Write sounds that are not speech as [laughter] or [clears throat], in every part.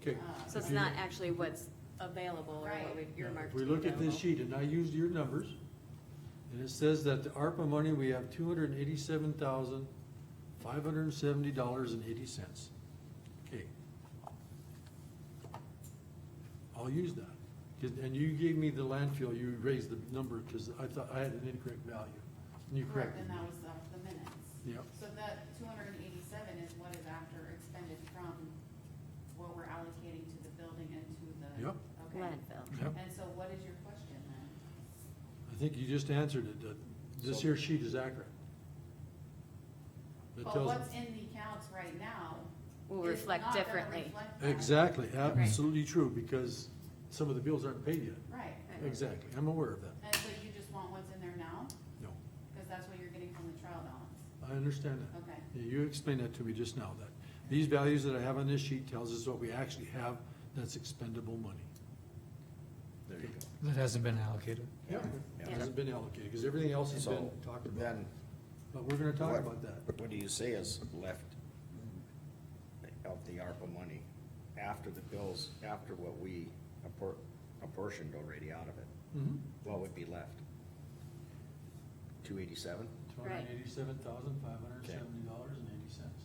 Okay. Uh, So it's If you- not actually what's available or what Right. we've earmarked If to we be look at this available. sheet, and I used your numbers, and it says that the ARPA money, we have two hundred and eighty-seven thousand, five hundred and seventy dollars and eighty cents. Okay. I'll use that, 'Cause- and you gave me the landfill, you raised the number, because I thought I had an incorrect value, and you Correct, corrected and me. that was off the minutes. Yep. So that two hundred and eighty-seven is what is after expended from what we're allocating to the building and to the. Yep. Okay. Landfill. Yep, And so what is your question then? I think you just answered it, that this here sheet is accurate. It But tells- what's in the accounts right now. Will is reflect not gonna differently. reflect that. Exactly, Right. absolutely true, because some of the bills aren't paid yet. Right, Right. Exactly, I'm aware of that. and so you just want what's in there now, No, cause that's what you're getting from the trial balance, I understand that. okay? Yeah, You explained that to me just now, that these values that I have on this sheet tells us what we actually have that's expendable money. There you go. That hasn't been allocated. Yeah. Yeah. Hasn't been allocated, because everything else has been So talked about, then, but we're gonna talk what- about that. What do you say is left of the ARPA money after the bills, after what we appor- apportioned already out of it? Mhm. What would be left? Two eighty-seven? Two hundred and eighty-seven thousand, five hundred and seventy dollars and eighty cents.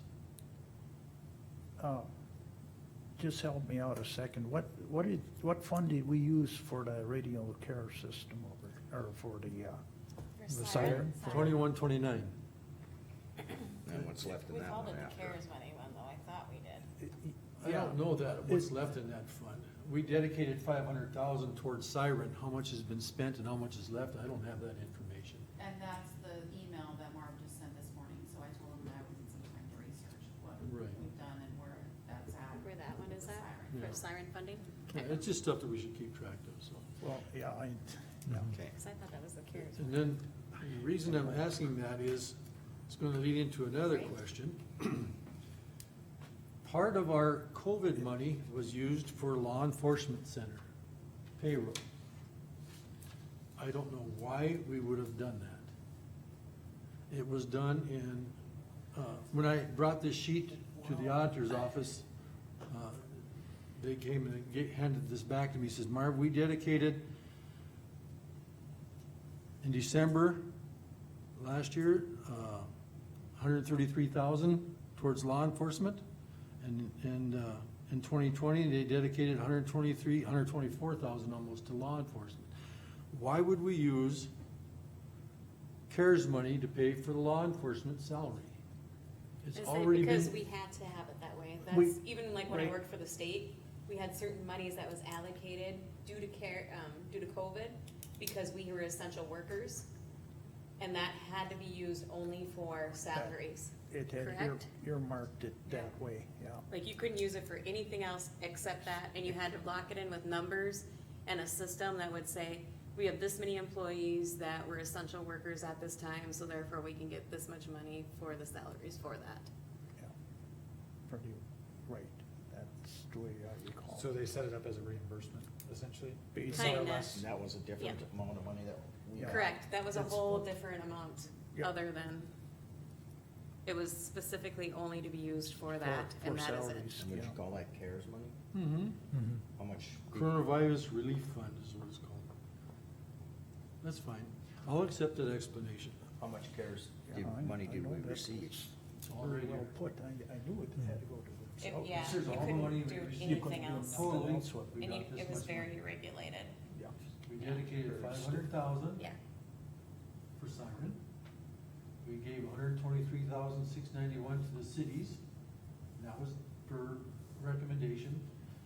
Uh, Just help me out a second. What, what did, what fund did we use for the radio care system over, or for the, uh, The siren? Twenty-one, twenty-nine. And what's left in We that called one it the after? CARES money one, though, I thought we did. I don't know that, what's left in that fund. We dedicated five hundred thousand towards Siren, how much has been spent and how much is left, I don't have that information. And that's the email that Marv just sent this morning, so I told him that I would need some time to research what Right. we've done and where that's at. Where that one with is the at, siren. Yeah. for siren funding? Yeah, Okay. It's just stuff that we should keep track of, so. well, yeah, I, yeah. Okay, Cause I thought that was the CARES. And then, the reason I'm asking that is, it's gonna lead into another question. [clears throat] Part of our COVID money was used for law enforcement center payroll. I don't know why we would have done that. It was done in, uh, when I brought this sheet to the auditor's office, uh, they came and ga- handed this back to me, says, Marv, we dedicated in December last year, uh, hundred and thirty-three thousand towards law enforcement. And, and, uh, in twenty twenty, they dedicated hundred and twenty-three, hundred and twenty-four thousand almost to law enforcement. Why would we use CARES money to pay for the law enforcement salary? It's Is it already been. because we had to have it that way? We- That's, even like when I right. worked for the state, we had certain monies that was allocated due to care, um, due to COVID, because we were essential workers. And that had to be used only for salaries. It had ear- Correct. earmarked it that way, yeah. Like you couldn't use it for anything else except that, and you had to lock it in with numbers and a system that would say, we have this many employees that were essential workers at this time, so therefore we can get this much money for the salaries for that. yeah. Pretty right. That's the way I recall. So they set it up as a reimbursement, essentially? Based Kinda. on less- and that was a different Yeah. amount of money that we. Yeah. Correct, that was a That's- whole different amount, Yeah. other than, it was specifically only to be used for that, for- and for that is it. salaries, And would you yeah. call that CARES money? Mhm. Mhm. How much? Coronavirus Relief Fund is what it's called. That's fine. I'll accept that explanation. How much CARES Yeah, did- I- money I did know we that. receive? It's all right Very well here. put. I, I knew it had to go to the. If- south. yeah, This you is all the money couldn't we do received. anything else, Oh. Totally, that's what we and you, got this it was much money. very regulated. Yeah. We dedicated five hundred thousand Yeah, for siren. We gave 123,691 hundred twenty-three thousand, six ninety-one to the cities. and That was per recommendation.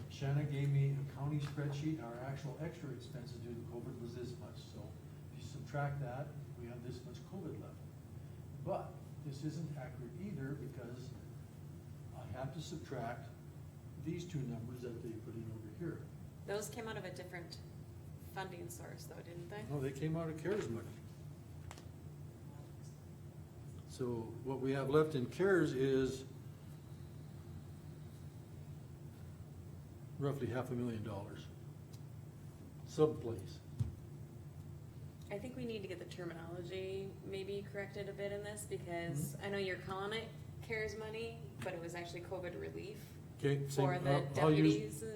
Shanna gave me a county spreadsheet, and our actual extra expenses due to COVID was this much, so if you subtract that, we have this much COVID left. But this isn't accurate either, because I have to subtract these two numbers that they put in over here. those came out of a different funding source though, didn't they? No, they came out of CARES money. So what we have left in CARES is roughly half a million dollars. Someplace. I think we need to get the terminology maybe corrected a Mm-hmm. bit in this, because I know you're calling it CARES money, but it was actually COVID relief Okay, same, for the I'll- I'll use- deputies